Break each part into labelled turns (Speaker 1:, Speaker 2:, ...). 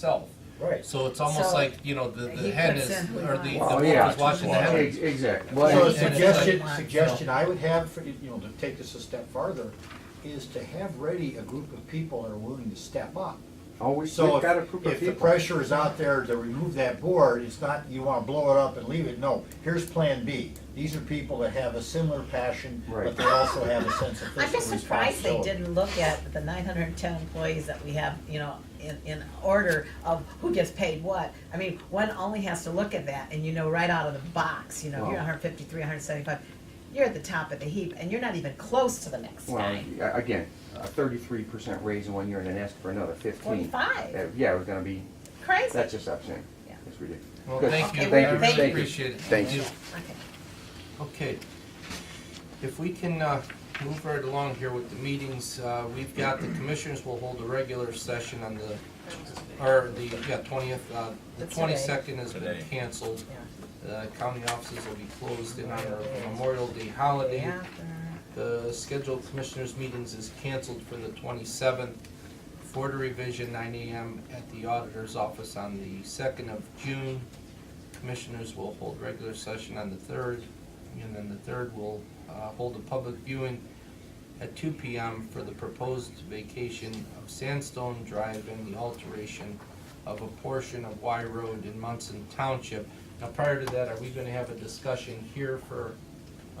Speaker 1: itself.
Speaker 2: Right.
Speaker 1: So it's almost
Speaker 3: So,
Speaker 1: like, you know, the, the
Speaker 3: he
Speaker 1: hen
Speaker 3: puts
Speaker 1: is,
Speaker 3: in who
Speaker 1: or the,
Speaker 3: he
Speaker 1: the
Speaker 3: wants.
Speaker 1: wolf
Speaker 4: Oh, yeah.
Speaker 1: is watching the hen.
Speaker 4: Ex- Exactly.
Speaker 2: So
Speaker 1: Well,
Speaker 2: a
Speaker 1: and- and-
Speaker 2: suggestion,
Speaker 3: and-
Speaker 2: suggestion I would have, for, you know, to take this a step farther, is to have ready a group of people that are willing to step up.
Speaker 4: Oh, we- we've
Speaker 2: So
Speaker 4: got a
Speaker 2: if,
Speaker 4: group of
Speaker 2: if the
Speaker 4: people.
Speaker 2: pressure is out there to remove that board, it's not, you wanna blow it up and leave it, no, here's plan B. These are people that have a similar passion, but
Speaker 4: Right.
Speaker 2: they also have a sense of fiscal responsibility.
Speaker 3: I'm just surprised they didn't look at the nine hundred and ten employees that we have, you know, in, in order of who gets paid what. I mean, one only has to look at that and you know right out of the box, you know, you're
Speaker 4: Well-
Speaker 3: hundred fifty-three, hundred seventy-five, you're at the top of the heap and you're not even close to the next
Speaker 4: Well,
Speaker 3: guy.
Speaker 4: a- again, a thirty-three percent raise in one year and then ask for another fifteen.
Speaker 3: 45.
Speaker 4: Uh, Yeah, it was gonna be,
Speaker 3: Crazy.
Speaker 4: that's just obscene.
Speaker 3: Yeah.
Speaker 4: It's ridiculous.
Speaker 1: Well,
Speaker 4: Good.
Speaker 1: thank you,
Speaker 3: Okay,
Speaker 1: I
Speaker 3: thank you.
Speaker 1: really appreciate it.
Speaker 4: Thank you.
Speaker 3: Okay.
Speaker 1: Okay. If we can uh, move right along here with the meetings, uh, we've got the commissioners will hold a regular session on the, or the, yeah, 20th, uh, the
Speaker 3: That's today.
Speaker 1: 22nd has been
Speaker 5: Today.
Speaker 1: canceled.
Speaker 3: Yeah.
Speaker 1: The county offices will be closed in honor of Memorial Day holiday.
Speaker 3: Yeah, uh,
Speaker 1: The scheduled commissioners' meetings is canceled for the 27th, for the revision, 9 AM at the auditor's office on the 2nd of June. Commissioners will hold regular session on the 3rd, and then the 3rd will uh, hold a public viewing at 2 PM for the proposed vacation of Sandstone Drive and the alteration of a portion of Y Road in Munson Township. Now, prior to that, are we going to have a discussion here for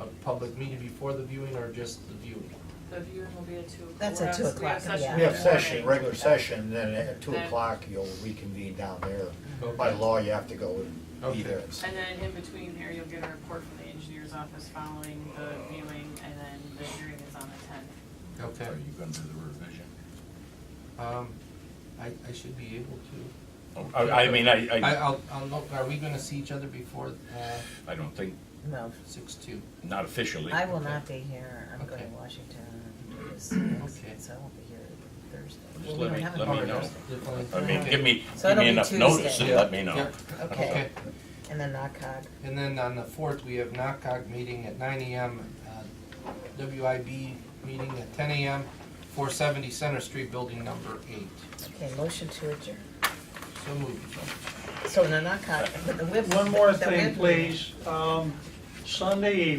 Speaker 1: a public meeting before the viewing or just the viewing?
Speaker 6: The viewing will be at two o'clock.
Speaker 3: That's at
Speaker 6: We're on-
Speaker 3: 2:00,
Speaker 6: we have
Speaker 3: yeah.
Speaker 2: We have
Speaker 6: session in the
Speaker 2: session,
Speaker 6: morning.
Speaker 2: regular session, then at two
Speaker 6: Then-
Speaker 2: o'clock, you'll reconvene down there.
Speaker 1: Okay.
Speaker 2: By law, you have to go and
Speaker 1: Okay.
Speaker 2: be there.
Speaker 6: And then in between there, you'll get a report from the engineer's office following the viewing, and then the hearing is on the tenth.
Speaker 1: Okay.
Speaker 5: Are you gonna do the revision?
Speaker 1: Um, I, I should be able to.
Speaker 5: Oh, I, I mean, I,
Speaker 1: I,
Speaker 5: I,
Speaker 1: I'll, I'll look, are we gonna see each other before, uh,
Speaker 5: I don't think,
Speaker 3: No,
Speaker 1: six two?
Speaker 5: not officially.
Speaker 3: I will not be here. I'm going to
Speaker 1: Okay.
Speaker 3: Washington to do this,
Speaker 1: Okay.
Speaker 3: so I won't be here Thursday.
Speaker 5: Just
Speaker 3: Well,
Speaker 5: let
Speaker 3: we
Speaker 5: me,
Speaker 3: don't have
Speaker 5: let
Speaker 3: a
Speaker 5: me
Speaker 3: meeting
Speaker 5: know.
Speaker 3: Thursday.
Speaker 5: I mean, give me,
Speaker 3: So
Speaker 5: give
Speaker 3: it'll
Speaker 5: me
Speaker 3: be
Speaker 5: enough
Speaker 3: Tuesday.
Speaker 5: notice and
Speaker 1: Yeah.
Speaker 5: let me know.
Speaker 1: Yep.
Speaker 3: Okay, and then NACOG.
Speaker 1: And then on the fourth, we have NACOG meeting at nine AM, uh, WIB meeting at ten AM, four seventy Center Street, building number eight.
Speaker 3: Okay, motion to adjourn.
Speaker 1: So moved.
Speaker 3: So no, not con, but the whip.
Speaker 7: One more
Speaker 3: the
Speaker 7: thing,
Speaker 3: whip-
Speaker 7: please. Um, Sunday evening.